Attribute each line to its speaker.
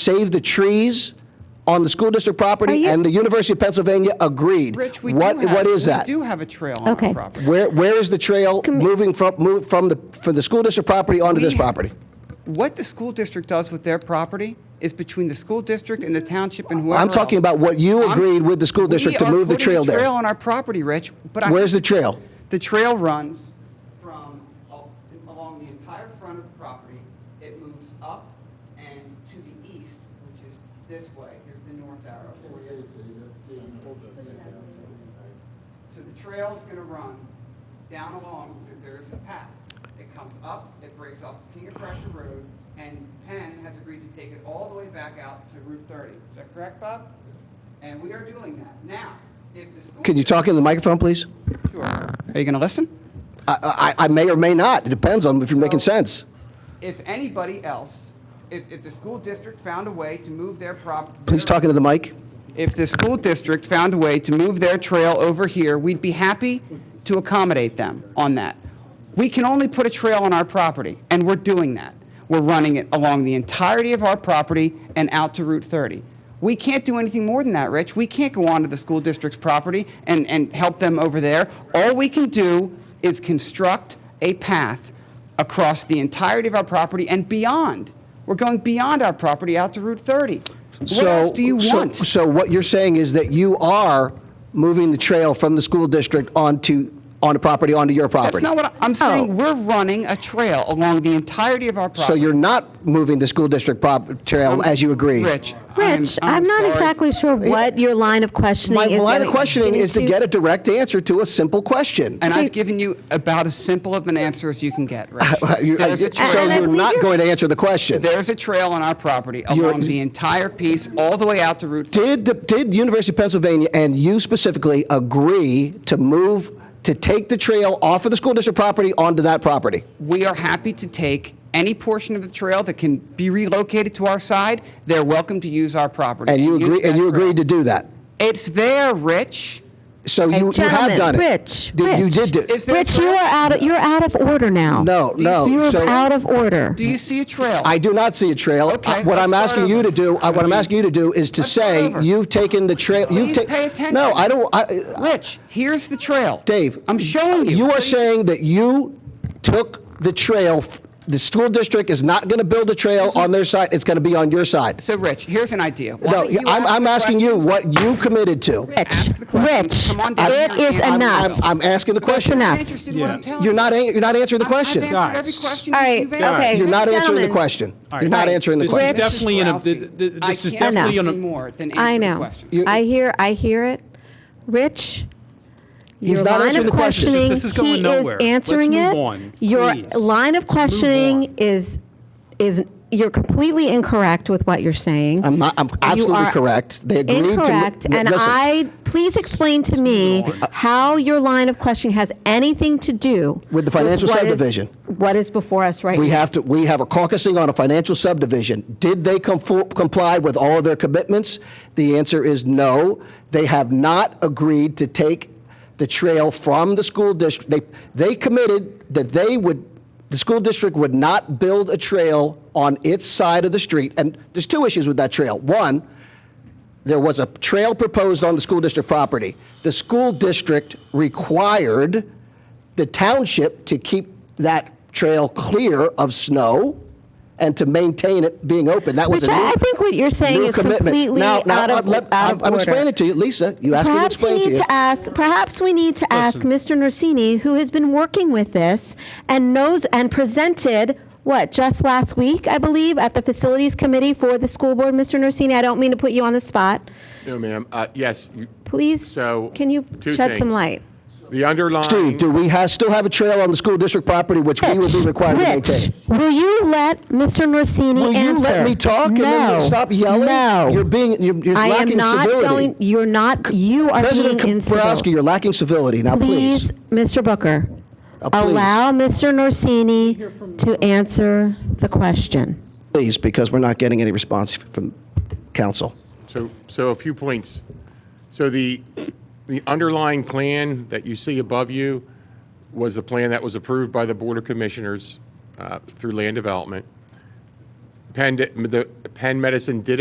Speaker 1: save the trees on the school district
Speaker 2: Are
Speaker 1: property,
Speaker 2: you-
Speaker 1: and the University of Pennsylvania agreed.
Speaker 3: Rich, we do
Speaker 1: What-
Speaker 3: have.
Speaker 1: What is
Speaker 3: we
Speaker 1: that?
Speaker 3: do have a trail on
Speaker 2: Okay.
Speaker 3: our property.
Speaker 1: Where, where is the trail moving from, move from the, from the school district property onto
Speaker 3: We
Speaker 1: this
Speaker 3: ha-
Speaker 1: property?
Speaker 3: What the school district does with their property is between the school district and the township and whoever
Speaker 1: I'm talking
Speaker 3: else.
Speaker 1: about what you
Speaker 3: I'm-
Speaker 1: agreed with the school
Speaker 3: We
Speaker 1: district to
Speaker 3: are
Speaker 1: move the
Speaker 3: putting
Speaker 1: trail
Speaker 3: a trail
Speaker 1: there.
Speaker 3: on our property, Rich, but I.
Speaker 1: Where's the trail?
Speaker 3: The trail runs from al- along the entire front of the property. It moves up and to the east, which is this way. Here's the north arrow for you. So the trail is going to run down along, th- there is a path. It comes up, it breaks off King of Prussia Road, and Penn has agreed to take it all the way back out to Route 30. Is that correct, Bob? And we are doing that. Now, if the school.
Speaker 1: Can you talk into the microphone, please?
Speaker 3: Sure. Are you going to listen?
Speaker 1: I, I, I may or may not. It depends on if you're making
Speaker 3: So-
Speaker 1: sense.
Speaker 3: If anybody else, if, if the school district found a way to move their prop.
Speaker 1: Please talk into the mic.
Speaker 3: If the school district found a way to move their trail over here, we'd be happy to accommodate them on that. We can only put a trail on our property, and we're doing that. We're running it along the entirety of our property and out to Route 30. We can't do anything more than that, Rich. We can't go onto the school district's property and, and help them over there. All we can do is construct a path across the entirety of our property and beyond. We're going beyond our property out to Route 30. What
Speaker 1: So,
Speaker 3: else do you
Speaker 1: so-
Speaker 3: want?
Speaker 1: So what you're saying is that you are moving the trail from the school district onto, on the property, onto your
Speaker 3: That's
Speaker 1: property?
Speaker 3: not what I- I'm saying. We're running a trail along the entirety of our property.
Speaker 1: Oh. So you're not moving the school district prop, trail as you agreed?
Speaker 3: Rich.
Speaker 2: Rich, I'm not
Speaker 3: sorry.
Speaker 2: exactly sure what your line of questioning
Speaker 1: My
Speaker 2: is.
Speaker 1: line of
Speaker 2: gonna-
Speaker 1: questioning is to
Speaker 2: getting
Speaker 1: get a direct answer to a simple question.
Speaker 3: And
Speaker 2: Okay.
Speaker 3: I've given you about as simple of an answer as you can get, Rich.
Speaker 1: Uh, You-
Speaker 3: There's a
Speaker 1: So
Speaker 2: And I
Speaker 3: trail,
Speaker 1: you're
Speaker 2: believe
Speaker 1: not
Speaker 2: you're-
Speaker 1: going to answer the question.
Speaker 3: there's a trail on our property
Speaker 1: You're-
Speaker 3: along the entire piece, all the way out to Route 4.
Speaker 1: Did, the- did University of Pennsylvania and you specifically agree to move, to take the trail off of the school district property onto that property?
Speaker 3: We are happy to take any portion of the trail that can be relocated to our side. They're welcome to use our property.
Speaker 1: And you
Speaker 3: use
Speaker 1: agree,
Speaker 3: that
Speaker 1: and you
Speaker 3: trail.
Speaker 1: agreed to do that?
Speaker 3: It's there, Rich.
Speaker 1: So
Speaker 2: Hey,
Speaker 1: you you have
Speaker 2: gentlemen,
Speaker 1: done it?
Speaker 2: Rich,
Speaker 1: Did- You
Speaker 2: Rich.
Speaker 1: did do,
Speaker 3: Is there a
Speaker 2: Rich, you
Speaker 3: trail?
Speaker 2: are out, of- you're out of order now.
Speaker 1: no,
Speaker 3: you
Speaker 1: no.
Speaker 3: see
Speaker 2: You're
Speaker 1: So-
Speaker 2: out of order.
Speaker 3: Do you see a trail?
Speaker 1: I do not see a trail. Uh,
Speaker 3: Okay,
Speaker 1: What
Speaker 3: let's
Speaker 1: I'm
Speaker 3: start
Speaker 1: asking you
Speaker 3: over.
Speaker 1: to do, uh, what I'm asking you to do is to
Speaker 3: Let's start
Speaker 1: say,
Speaker 3: over.
Speaker 1: you've taken the trail, you've
Speaker 3: Please
Speaker 1: taken...
Speaker 3: pay attention.
Speaker 1: No, I don't, I-
Speaker 3: Rich, here's the trail.
Speaker 1: Dave.
Speaker 3: I'm showing you.
Speaker 1: You
Speaker 3: What
Speaker 1: are
Speaker 3: do
Speaker 1: saying that you took the trail, f- the school district is not going to build a trail on their side, it's going to be on your side.
Speaker 3: So, Rich, here's an idea. Why
Speaker 1: No,
Speaker 3: don't you
Speaker 1: I'm,
Speaker 3: ask
Speaker 1: I'm
Speaker 3: the
Speaker 1: asking you
Speaker 3: questions?
Speaker 1: what you committed to.
Speaker 2: Rich,
Speaker 3: Ask the questions.
Speaker 2: Rich,
Speaker 3: Come on down
Speaker 2: it
Speaker 3: here
Speaker 2: is
Speaker 3: and-
Speaker 1: I'm,
Speaker 2: enough.
Speaker 1: I'm asking the question.
Speaker 2: enough.
Speaker 3: I'm interested in what I'm telling you.
Speaker 1: You're not, an- you're not answering the question.
Speaker 3: I've answered every question
Speaker 2: All right,
Speaker 3: you've answered.
Speaker 2: okay.
Speaker 1: You're not answering the
Speaker 2: Gentlemen.
Speaker 1: question.
Speaker 4: right.
Speaker 1: You're not answering the
Speaker 4: This is
Speaker 1: question.
Speaker 2: Rich.
Speaker 4: definitely, an-
Speaker 3: Ralston,
Speaker 4: th- th-
Speaker 3: I
Speaker 4: this is
Speaker 3: can't
Speaker 4: definitely
Speaker 3: do
Speaker 4: an-
Speaker 3: more than
Speaker 2: I
Speaker 3: answer the
Speaker 2: know.
Speaker 3: questions.
Speaker 2: I hear, I hear it. Rich,
Speaker 1: not
Speaker 2: your line
Speaker 1: answering
Speaker 2: of
Speaker 1: the question.
Speaker 2: questioning,
Speaker 4: This is going
Speaker 2: he is
Speaker 4: nowhere. Let's
Speaker 2: answering
Speaker 4: move
Speaker 2: it.
Speaker 4: on,
Speaker 2: Your
Speaker 4: please.
Speaker 2: line of
Speaker 4: Let's move
Speaker 2: questioning
Speaker 4: on.
Speaker 2: is, is, you're completely incorrect with what you're saying.
Speaker 1: I'm not, I'm absolutely
Speaker 2: are
Speaker 1: correct. They agreed to.
Speaker 2: Incorrect, and
Speaker 1: Listen,
Speaker 2: I, please explain to me how your line of questioning has anything to do.
Speaker 1: With the financial
Speaker 2: what is-
Speaker 1: subdivision.
Speaker 2: What is before us right now.
Speaker 1: We have to, we have a caucusing on a financial subdivision. Did they compl- comply with all of their commitments? The answer is no. They have not agreed to take the trail from the school district. They, they committed that they would, the school district would not build a trail on its side of the street. And there's two issues with that trail. One, there was a trail proposed on the school district property. The school district required the township to keep that trail clear of snow and to maintain it being open. That was
Speaker 2: Which
Speaker 1: a new,
Speaker 2: I- I think what you're saying
Speaker 1: new
Speaker 2: is
Speaker 1: commitment.
Speaker 2: completely
Speaker 1: now, now,
Speaker 2: out of-
Speaker 1: I'm, let-
Speaker 2: out
Speaker 1: I'm,
Speaker 2: of
Speaker 1: I'm
Speaker 2: order.
Speaker 1: explaining to you, Lisa. You asked me to
Speaker 2: Perhaps we
Speaker 1: explain
Speaker 2: need
Speaker 1: you.
Speaker 2: to ask, perhaps we need to ask Mr. Norsini, who has been working with this and knows and presented, what, just last week, I believe, at the Facilities Committee for the school board. Mr. Norsini, I don't mean to put you on the spot.
Speaker 5: No, ma'am. Uh, Yes, you-
Speaker 2: Please,
Speaker 5: So,
Speaker 2: can you
Speaker 5: two
Speaker 2: shed some
Speaker 5: things.
Speaker 2: light?
Speaker 5: the underlying.
Speaker 1: Steve, do we ha still have a trail on the school district property which we would be required to
Speaker 2: Rich,
Speaker 1: maintain?
Speaker 2: will you let Mr. Norsini
Speaker 1: Will
Speaker 2: answer?
Speaker 1: you let me talk and then
Speaker 2: No.
Speaker 1: you stop yelling?
Speaker 2: No.
Speaker 1: You're being you're, you're
Speaker 2: I am
Speaker 1: lacking
Speaker 2: not
Speaker 1: civility.
Speaker 2: going. You're not. You are
Speaker 1: President
Speaker 2: being
Speaker 1: Kaprowski,
Speaker 2: incivil.
Speaker 1: you're lacking civility. Now,
Speaker 2: Please, Mr. Booker,
Speaker 1: Uh, please.
Speaker 2: allow Mr. Norsini to answer the question.
Speaker 1: please, because we're not getting any response from council.
Speaker 5: So, so a few points. So the, the underlying plan that you see above you was the plan that was approved by the Board of Commissioners uh, through Land Development. Penn, di- the Penn Medicine did